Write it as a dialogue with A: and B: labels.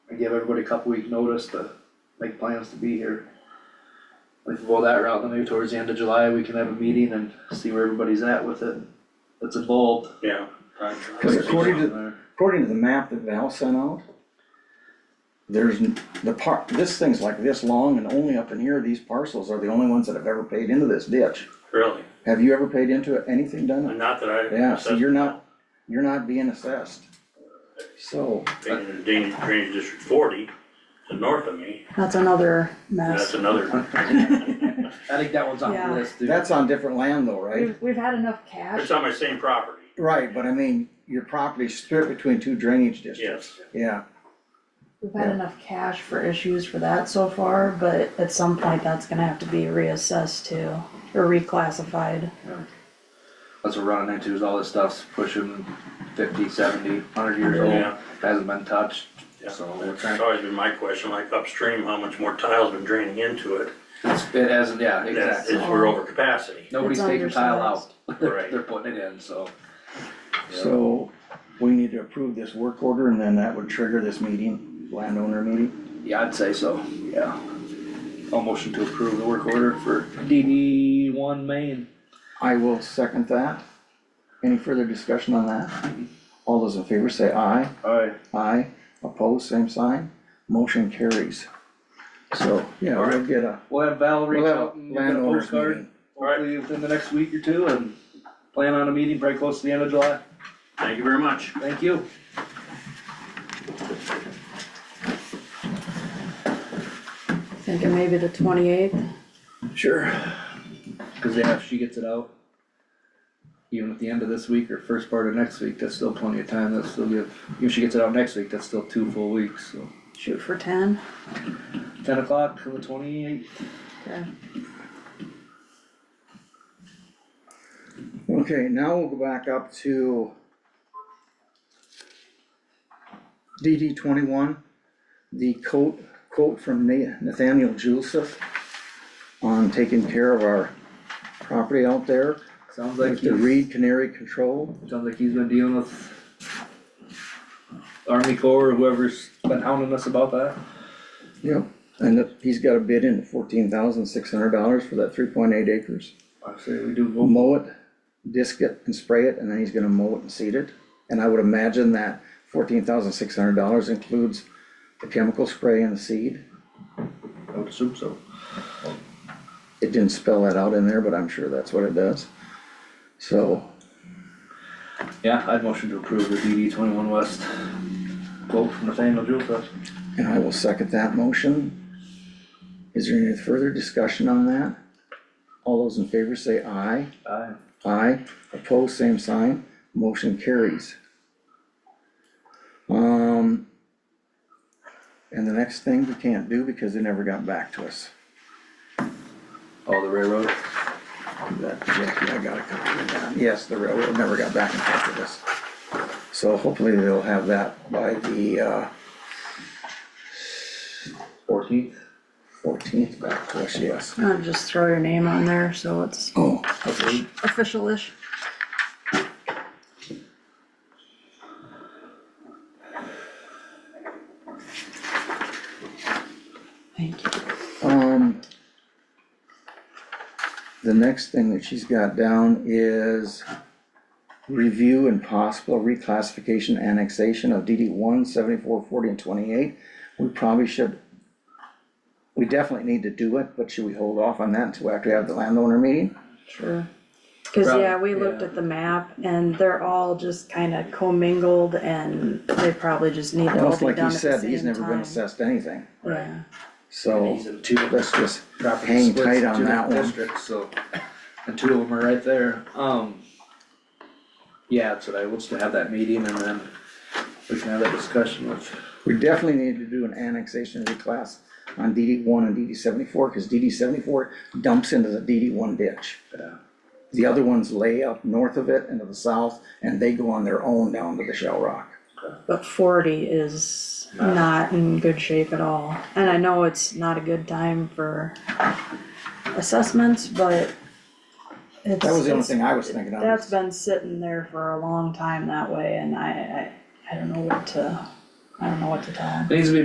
A: give everybody a couple week notice to make plans to be here. We can go that route, then maybe towards the end of July, we can have a meeting and see where everybody's at with it, that's involved.
B: Yeah. I-
C: Cause according to, according to the map that Val sent out, there's, n- the part, this thing's like this long and only up in here, these parcels are the only ones that have ever paid into this ditch.
B: Really,
C: Have you ever paid into it? anything done?
B: not that I.
C: Yeah, so you're not, you're not being assessed. So,
B: Being in Dane- Drainage District forty, to north of me,
D: That's another
B: that's
D: mess.
B: another,
A: I think that one's on the
D: Yeah.
A: list, dude.
C: that's on different land though, right?
D: We've, we've had enough cash.
B: it's on my same property,
C: Right, but I mean, your property's split between two drainage districts,
B: yes.
C: yeah.
D: We've had enough cash for issues for that so far, but at some point, that's gonna have to be reassessed too, or reclassified.
A: That's what we're running into, is all this stuff's pushing fifty, seventy, hundred years
C: Oh,
B: Yeah.
A: old, hasn't been touched,
B: Yeah.
A: so we're
B: That's
A: trying,
B: always been my question, like upstream, how much more tile's been draining into it?
A: it's, it hasn't, yeah,
B: That's,
A: exactly.
B: it's, we're over capacity,
A: Nobody's
D: It's
A: taking tile out,
D: undersized.
B: Right.
A: they're putting it in, so.
C: So, we need to approve this work order and then that would trigger this meeting, landowner meeting.
A: Yeah, I'd say so, yeah. I'll motion to approve the work order for DD one main.
C: I will second that. Any further discussion on that? All those in favor say aye.
A: Alright.
C: Aye. Opposed, same sign. Motion carries. So, yeah, we'll get a,
A: We'll have Val reach
C: we'll
A: out
C: have
A: and get a
C: landowners
A: postcard,
C: meeting.
A: hopefully within the next week or two, and plan on a meeting very close to the end of July.
B: thank you very much.
A: Thank you.
D: Thinking maybe the twenty-eighth,
A: Sure. Cause yeah, if she gets it out, even at the end of this week or first part of next week, that's still plenty of time, that's still give, even if she gets it out next week, that's still two full weeks, so.
D: shoot for ten.
A: Ten o'clock on the twenty-eighth.
D: Okay.
C: Okay, now we'll go back up to DD twenty-one, the quote, quote from Na- Nathaniel Joseph on taking care of our property out there.
A: Sounds like
C: Like the
A: he's,
C: Reed Canary Control,
A: sounds like he's been dealing with Army Corps or whoever's been hounding us about that.
C: yeah, and that he's got a bid in fourteen thousand six hundred dollars for that three point eight acres.
A: I say we do
C: We'll
A: go,
C: mow it, disc it and spray it, and then he's gonna mow it and seed it. And I would imagine that fourteen thousand six hundred dollars includes the chemical spray and the seed.
A: I would assume so.
C: It didn't spell that out in there, but I'm sure that's what it does. So,
A: Yeah, I'd motion to approve the DD twenty-one West quote from Nathaniel Jules.
C: and I will second that motion. Is there any further discussion on that? All those in favor say aye.
A: Aye.
C: Aye, opposed, same sign, motion carries. Um, and the next thing we can't do because they never got back to us.
A: All the railroad.
C: That, yeah, I got a copy of that. Yes, the railroad never got back in touch with us. So hopefully they'll have that by the, uh,
A: Fourteenth.
C: fourteenth back to us, yes.
D: I'll just throw your name on there, so it's
C: Oh,
D: official-ish. Thank you.
C: um, the next thing that she's got down is review and possible reclassification annexation of DD one, seventy-four, forty, and twenty-eight. We probably should, we definitely need to do it, but should we hold off on that until after we have the landowner meeting?
D: Sure. Cause
A: Probably,
D: yeah, we looked
A: yeah.
D: at the map and they're all just kinda commingled and they probably just need to all
C: Almost
D: be
C: like
D: done
C: he
D: at the same
C: said, he's never been
D: time.
C: assessed anything,
D: Yeah,
C: so
A: He's in two different
C: let's just
A: property
C: hang
A: splits,
C: tight
A: two
C: on that
A: different
C: one.
A: Districts, so, and two of them are right there, um. Yeah, that's what I, we'll just have that meeting and then we can have that discussion with,
C: We definitely need to do an annexation reclass on DD one and DD seventy-four, cause DD seventy-four dumps into the DD one ditch.
A: uh,
C: The other ones lay up north of it and to the south, and they go on their own down to the Shell Rock.
D: but forty is not in good shape at all. And I know it's not a good time for assessments, but it's.
C: That was the only
D: it's-
C: thing I was thinking of.
D: That's been sitting there for a long time that way and I, I, I don't know what to, I don't know what to tell 'em.
A: it needs to be